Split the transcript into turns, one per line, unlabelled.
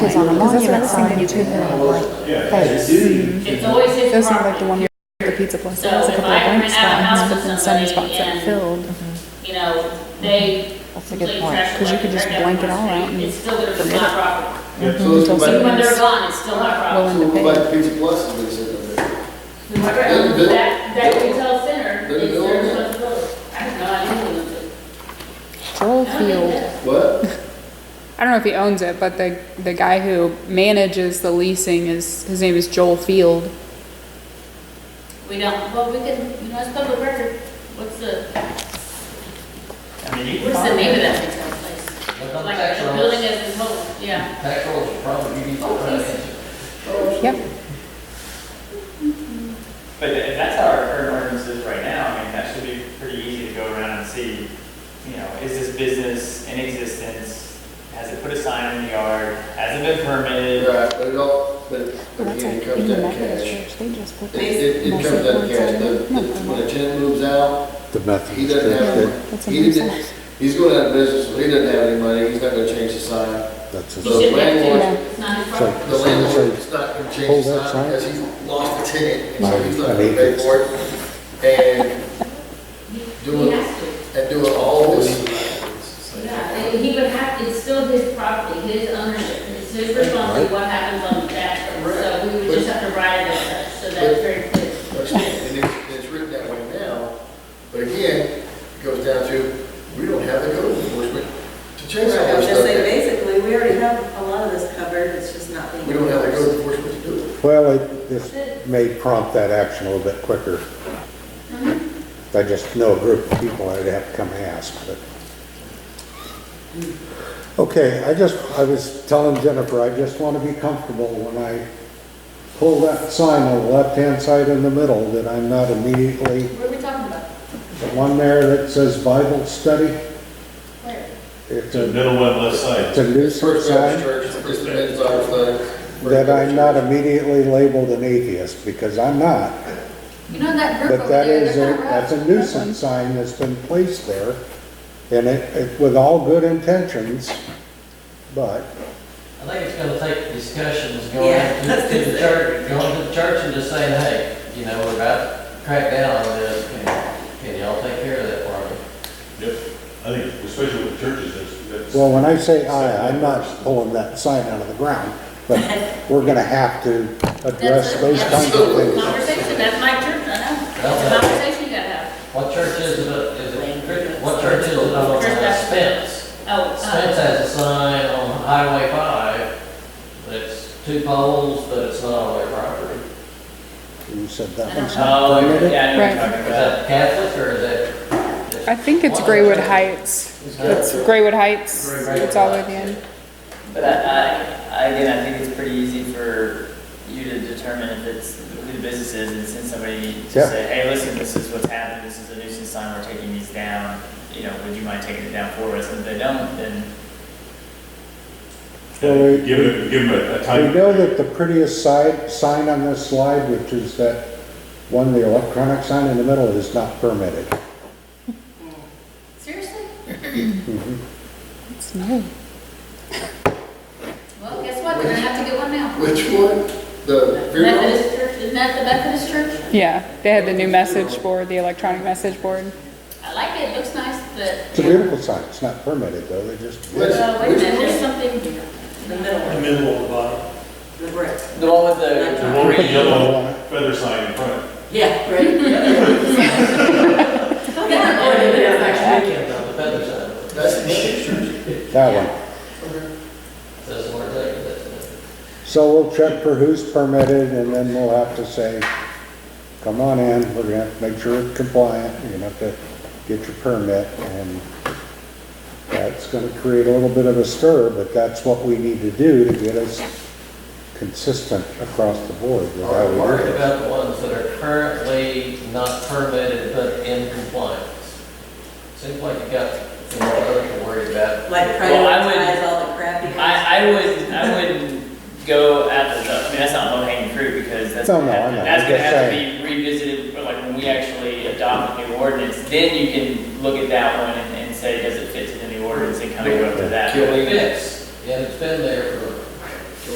Because on a monument sign, you could have like face.
It's always
Those
his
sound like the
property,
one, the pizza place, that has a
So if
couple
I
of blank
rent out a house
spots,
to
and sunny spots
somebody
that are
and-
filled.
you know, they.
That's a good point, 'cause you could just blank it all out and
It's still their, it's not property.
Yeah, so it's
Until
like-
Even when
someone-
they're gone, it's still not property.
Willing
so
to
it's
pay.
like Pizza Plus, and they said that they-
Whoever owns um, That, that retail center
Then
is
they'll-
their responsibility. I don't know, I didn't know it.
Joel
I don't think
Field.
that-
What?
I don't know if he owns it, but the the guy who manages the leasing is his name is Joel Field.
We don't, well, we can, you know, it's public record. What's the,
I mean, you can
what's the
find
name of
it.
that retail place?
Look on
Like,
tax
the
rolls.
building is in total, yeah.
Tax rolls are probably, you need to
Oh,
run
please.
it.
Yep.
But tha- that's how our current ordinance is right now, I mean, that should be pretty easy to go around and see, you know, is this business in existence? Has it put a sign in the yard? Has it been permitted?
Right, but it all, but
Well, that's
again,
like
it
in
comes
the
down to
Methodist
cash.
church, they just put
It,
these
it, it
massive
comes down to
boards
cash,
on
the,
it. No,
the-
no,
when
no.
a tenant moves out,
The
he
Methodist
doesn't
Church,
have,
that-
That's
he
in
didn't,
themselves.
he's going out of business, so he doesn't have any money, he's not gonna change the sign.
that's
So-
You
a,
shouldn't have
landlord-
to, it's not his property.
The
so,
landlord's not gonna change
Hold
the
that
sign
sign.
because he lost the tenant, and so he's not
Mine,
gonna
I
pay
hate
for it. And
He
doing,
has to.
and doing all this,
Yeah, and he would have, it's still his property, his ownership, it's his responsibility what happens on that. So we would just have to write it as such, so that's very clear.
and it's, it's written that way now. But again, it goes down to, we don't have the code enforcement to change all
I
this
was just saying,
stuff.
basically, we already have a lot of this covered, it's just not being.
We don't have the
enforced.
code enforcement to do it.
well, it- this may prompt that action a little bit quicker. I just know a group of people I'd have to come ask, but. Okay, I just, I was telling Jennifer, I just want to be comfortable when I pull that sign on the left-hand side in the middle, that I'm not immediately,
What are we talking about?
the one there that says Bible study,
Where?
it's
The
a,
middle one, left side.
it's a nuisance
First
sign.
Baptist Church, it's the men's Bible study.
that I'm not immediately labeled an atheist, because I'm not.
You know that group
But
over
that
there,
is, a
they're not
that's
rough.
a nuisance sign that's been placed there, and it, it- with all good intentions, but
I think it's gonna take discussions
Yeah,
going
that's
to to the
it.
church, going to the church and just saying, hey, you know, we're about to crack down on this, can, can y'all take care of that for me?
Yep, I think, especially with churches, that's, that's.
Well, when I say I, I'm not pulling that sign out of the ground, but we're gonna have to address
That's a-
those kinds of things.
Conversation, that's my church, I know. It's a conversation you gotta have.
What church is it, is it, what church is it on
Church Baptist.
Spence?
Oh,
Spence
uh,
has a sign on Highway five, that's two poles, but it's not on their property.
You said that one's
Oh,
not permitted?
yeah, I know what you're talking
Is
about.
that Catholic or is that?
I think it's Graywood Heights. It's Graywood Heights. It's all the way at the end.
But I, I, again, I think it's pretty easy for you to determine if it's who the business is and send somebody to
Yeah.
say, hey, listen, this is what's happened, this is a nuisance sign, we're taking these down. You know, would you mind taking it down for us? And if they don't, then
Well,
Give it, give them a a
We
time.
know that the prettiest side, sign on this slide, which is that one, the electronic sign in the middle is not permitted.
seriously?
It's new.
Well, guess what, they're gonna have to get one now.
Which one? The funeral?
Methodist church, isn't that the Methodist church?
Yeah, they had the new message board, the electronic message board.
I like it, it looks nice, but,
It's a beautiful sign, it's not permitted though, they just,
Which-
well, wait a
which
minute,
one?
there's something,
The middle one,
middle of the bottom.
the brick.
The one with
The one with the
the.
yellow feather sign in front.
Yeah, right.
oh, yeah,
Next weekend on the feather side.
That's the men's church.
that one.
That's the word they- that's it.
So we'll check for who's permitted and then we'll have to say, come on in, we're gonna have to make sure it's compliant, you're gonna have to get your permit and that's gonna create a little bit of a stir, but that's what we need to do to get us consistent across the board with how
Are
we
we
do
worried
it.
about the ones that are currently not permitted but in compliance? Seems like you got some more others to worry about.
Like
Well, I would-
prioritize all the crappy. ones.
I, I would, I wouldn't go after the, I mean, that's not low hanging fruit because that's.
No,
gonna
no, I
have-
know.
That's
I'm
gonna
just
have to be revisited, or like when we actually adopt the new ordinance, then you can look at that one and, and say, does it fit to the new ordinance and kind of go after that.
Can we fix? And it's been there for